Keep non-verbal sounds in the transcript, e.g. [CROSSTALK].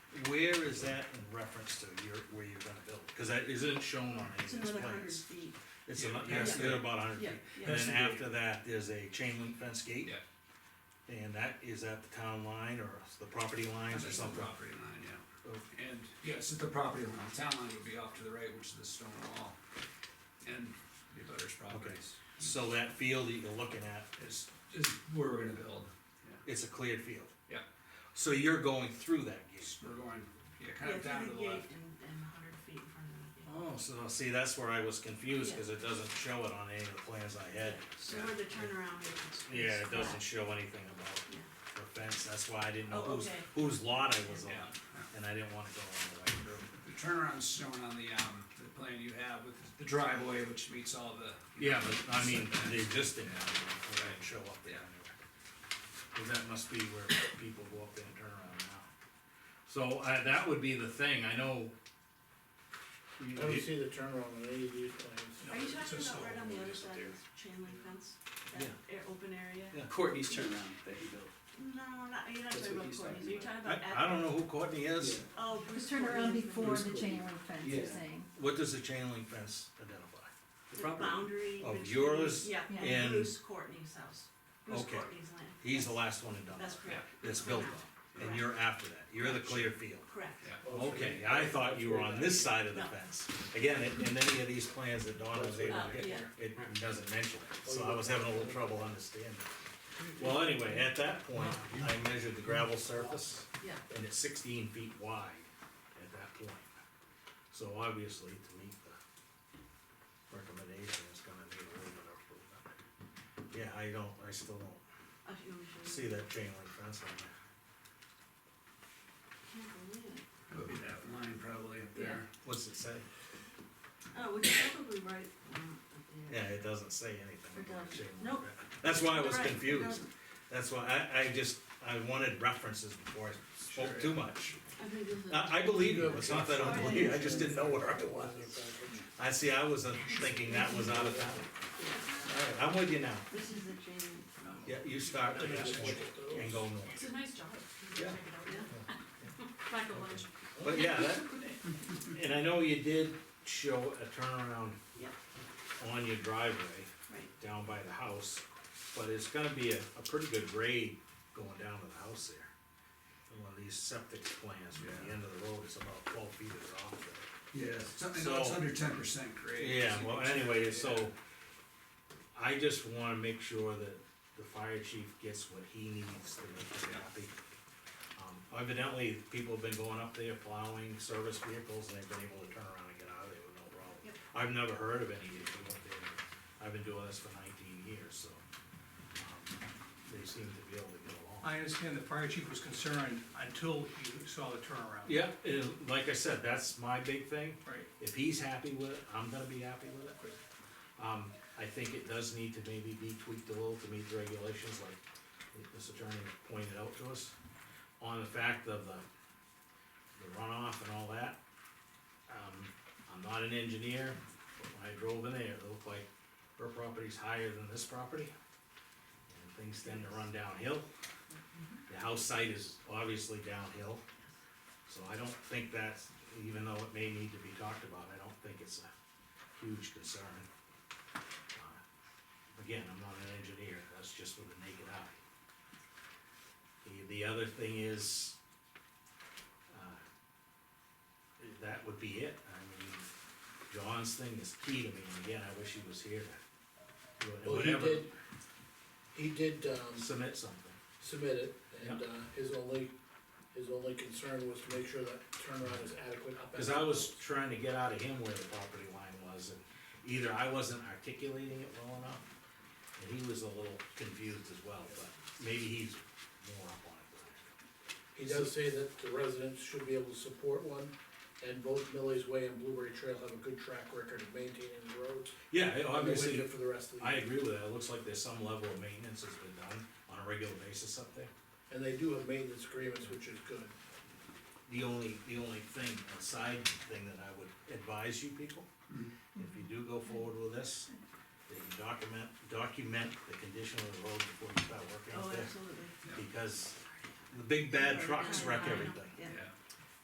where is that in reference to your, where you're gonna build? Cause that isn't shown on It's any of these another hundred plans. feet, It's, Yeah, ano- yeah. yes, they're about hundred feet. yeah, yeah. And That's then the gate. after that, there's a chain link fence gate. Yeah. And that is at the town line or the property lines or That's the something. property line, yeah. Oh, And, yes, it's the property line, town line would be off to the right, which is the stone wall. And the butters properties So that field that you're looking at, is, is where we're gonna build. it's a cleared field. Yeah. So you're going through that gate. We're going, yeah, kind Yeah, of down through to the the left. gate and, and a hundred feet in front of Oh, so see, that's where I was confused, cause it doesn't show it on any of the plans I had. the gate. So where the turnaround is. Yeah, is it doesn't flat. show anything about Yeah. the fence, that's why I didn't know Oh, whose, okay. whose lot I was Yeah, on, yeah. and I didn't wanna go all the way through. The turnaround's shown on the, um, the plan you have with the driveway, which meets all the. Yeah, but I mean, setbacks. the existing, one, it didn't show up there Yeah. anyway. Cause that must be where people go up there and turn around now. So, uh, that would be the thing, I know. I don't see the turnaround on any of these plans. Are you it's talking just about all right on the over other there. side of the chain link fence? That air, open area? Yeah. Courtney's turnaround that he built. No, not, you're not That's talking what about he's Courtney's, talking you're talking I, about at. I don't know who Courtney is, Oh, Bruce Just turn around Courtney's before the Preschool. chain link fence, Yeah. you're saying? what does the chain link fence identify? The boundary. Of between- yours Yeah, Yeah. and- Bruce Courtney's house, Bruce Okay. Courtney's land, He's the last one in Dunbar, that's correct, that's built on, and you're after that, you're the clear field. correct. Yeah. Okay, I thought you were on this side of the fence. Again, in in any of these plans that Donna was able Uh, to yeah. get, it doesn't mention it, so I was having a little trouble understanding. Well, anyway, at that point, I measured the gravel surface, Yeah, and it's sixteen feet wide at that point. So obviously, to meet the recommendation, it's gonna need a little bit of improvement. Yeah, I don't, I still don't I should, I should, see that chain link fence on there. can't believe it. That would be that line probably up Yeah. there. What's it say? Oh, which is probably right, um, up Yeah, there. it doesn't say anything about It chain link doesn't. Nope. fence. That's why I was Right, it confused. doesn't. That's why I, I just, I wanted references before I spoke Sure. too much. I think this is. I, I believe you, it's not that I don't believe, you, I just didn't know where I was. was. I see, I was uh, thinking that was out of town. Alright, I'm with you now. This is the chain, link. Yeah, you start at that point and go it's north. a nice job. Yeah. [LAUGHS] Back at lunch. But yeah, that, and I know you did show a turnaround Yep, on your driveway. right, down by the house, but it's gonna be a, a pretty good grade going down to the house there. And one of these septic plans from the end of the road is about twelve feet is off there. Yeah. Something, no, it's So- under ten percent grade. Yeah, well, anyway, so Yeah. I just wanna make sure that the fire chief gets what he needs to make us happy. Um, Evidently, people have been going up there plowing service vehicles and they've been able to turn around and get out of there with no problem. Yep. I've never heard of any issue up there. I've been doing this for nineteen years, so, um, they seem to be able to get along. I understand the fire chief was concerned until he saw the turnaround. Yeah, and like I said, that's my big thing. Right, If he's happy with it, I'm gonna be happy with it. Um, I think it does need to maybe be tweaked a little to meet the regulations like this attorney pointed out to us. On the fact of the, the runoff and all that. Um, I'm not an engineer, but when I drove in there, it looked like her property's higher than this property. And things tend to run downhill. The house site is obviously downhill. So I don't think that's, even though it may need to be talked about, I don't think it's a huge concern. Uh, Again, I'm not an engineer, that's just with the naked eye. The, the other thing is, uh, that would be it, I mean, John's thing is key to me, and again, I wish he was here to, do it. Well, he whatever, did, he did, um, submit something. submit it, and, uh, his only, his only concern was to make sure that turnaround is adequate up. at Cause the I was house. trying to get out of him where the property line was, and either I wasn't articulating it well enough, and he was a little confused as well, but maybe he's more up on it. than He does say that the residents should be able to support one, and both Millie's Way and Blueberry Trail have a good track record of maintaining the I roads. am. Yeah, and they're with obviously, it For the rest of the I year, agree with that, it looks like there's some level of maintenance that's been done on a regular basis up there. and they do have maintenance agreements, which is good. The only, the only thing, a side thing that I would advise you people, if you do go forward with this, that you document, document the condition of the road before you start working oh, out there. absolutely. because the big bad trucks wreck everything. Yeah, Yeah.